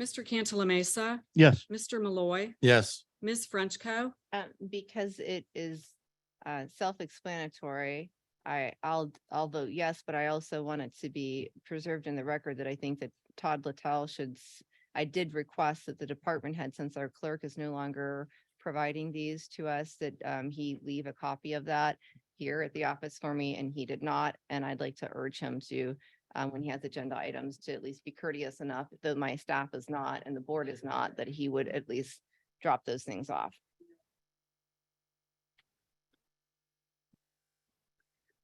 Mr. Cantala Mesa, Yes. Mr. Malloy, Yes. Ms. Frenchco. Um, because it is uh self-explanatory, I I'll I'll vote yes, but I also want it to be preserved in the record that I think that Todd Littell should s- I did request that the department head, since our clerk is no longer providing these to us, that um he leave a copy of that here at the office for me, and he did not, and I'd like to urge him to um when he has agenda items to at least be courteous enough, though my staff is not and the board is not, that he would at least drop those things off.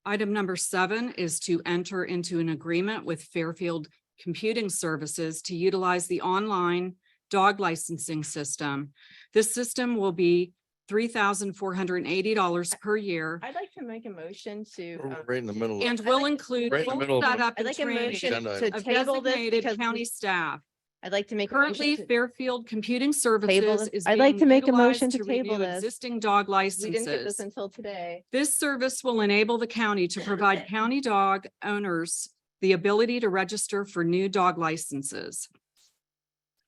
Item number seven is to enter into an agreement with Fairfield Computing Services to utilize the online dog licensing system. This system will be three thousand four hundred and eighty dollars per year I'd like to make a motion to. um, Right in the middle. and I'd will like- include Right in the middle full of- setup I'd and like a training motion Agenda to of table this designated because county we- staff. I'd like to make. a motion Currently, to- Fairfield Computing Services this. is. I'd like being to make a utilized motion to table renew this. Existing dog We didn't get this licenses. until today. This service will enable the county to provide county dog owners the ability to register for new dog licenses.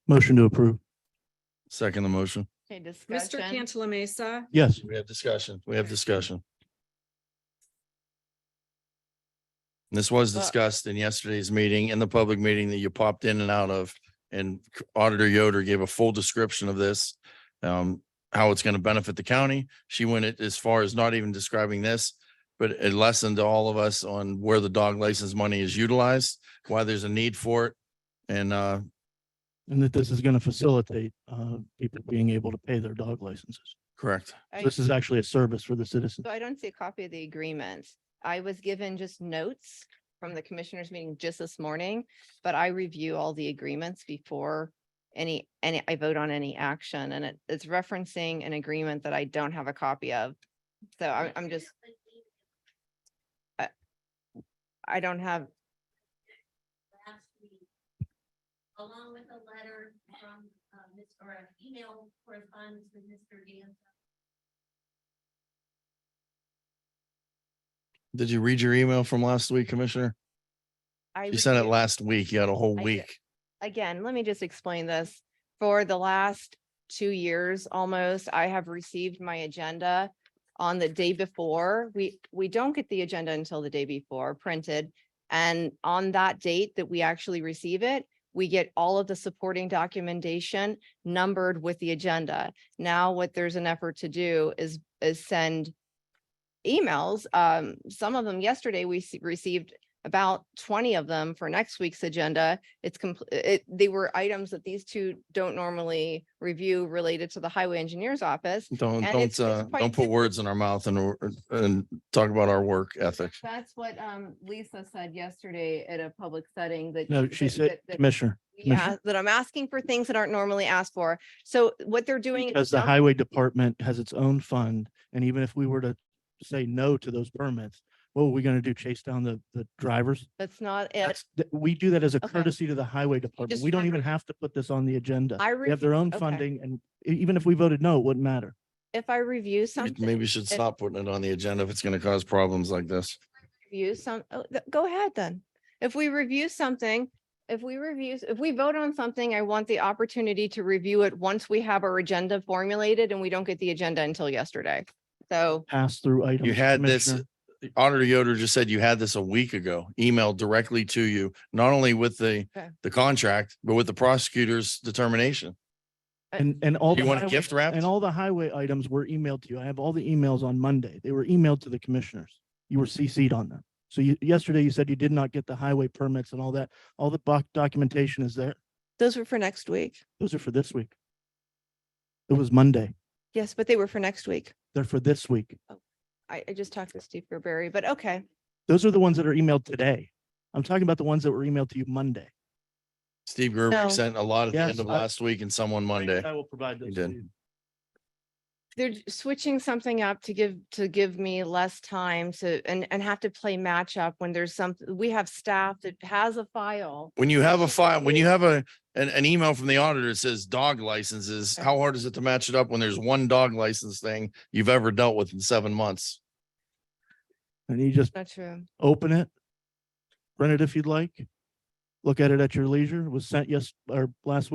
Motion to approve. Second the motion. Okay, Mr. discussion. Cantala Mesa, Yes. We have discussion. We have discussion. This was Well- discussed in yesterday's meeting, in the public meeting that you popped in and out of. And Auditor Yoder gave a full description of this, um, how it's going to benefit the county. She went it- as far as not even describing this, but a lesson to all of us on where the dog license money is utilized, why there's a need for it. And, uh, And that this is going to facilitate uh, people being able to pay their dog licenses. correct. I- This is actually a service for the citizens. So I don't see a copy of the agreement. I was given just notes from the commissioners meeting just this morning, but I review all the agreements before any, any, I vote on any action and it, it's referencing an agreement that I don't have a copy of. So I'm, I'm just. I- I don't have, last week. Along with a letter from, uh, Ms. or an email correspondence with Mr. Danza. Did you read your email from last week, Commissioner? I. You sent it reviewed- last week. You had a whole I did. week. again, let me just explain this. For the last two years almost, I have received my agenda on the day before. We, we don't get the agenda until the day before printed. And on that date that we actually receive it, we get all of the supporting documentation numbered with the agenda. Now what there's an effort to do is, is send emails. Um, some of them yesterday, we s- received about twenty of them for next week's agenda it's complete, it, they were items that these two don't normally review related to the highway engineer's office. Don't, And it's- don't, it's uh, quite don't put different. words in our mouth and, or- and talk about our work ethic. That's what, um, Lisa said yesterday at a public setting that. No, she that- said, that- that Commissioner, we Commissioner, ask- That I'm asking for things that aren't normally asked for. So what they're doing. is because the dump- highway department has its own fund. And even if we were to say no to those permits, what are we going to do? Chase down the, the drivers? That's not it. That's, th- we do that as a Okay. courtesy to the highway department. just We don't remember- even have to put this on the agenda. I They have their reviewed- own okay. funding and e- even if we voted no, it wouldn't matter. If I review You something, Maybe you should stop putting it on the agenda if it's going to cause problems like this. review some, oh, th- go ahead then. If we review something, if we review, if we vote on something, I want the opportunity to review it once we have our agenda formulated and we don't get the agenda until yesterday. So Pass through items. You had this, Commissioner. Auditor Yoder just said you had this a week ago, emailed directly to you, not only with the, Okay. the contract, but with the prosecutor's determination. Uh, And, and all. You the want a highway- gift wrap? And all the highway items were emailed to you. I have all the emails on Monday. They were emailed to the commissioners. You were CC'd on them. So you, yesterday you said you did not get the highway permits and all that. All the doc- documentation is there. those were for next week. Those are for this week. It was Monday. Yes, but they were for next week. They're for this week. I, I just talked to Steve Gerberry, but okay. Those are the ones that are emailed today. I'm talking about the ones that were emailed to you Monday. Steve Gerber No. sent a lot at the end Yes, of I- last week and someone Monday. will provide You those to did. They're j- switching something up to give, to give me less time to, and, and have to play match up when there's some, we have staff that has a file When you have a file, when you have a, an, an email from the auditor that says dog licenses, how hard is it to match it up when there's one dog license thing you've ever dealt with in seven months? And you just Not true. open it, print it if you'd like. Look at it at your leisure. It was sent yes, or last week.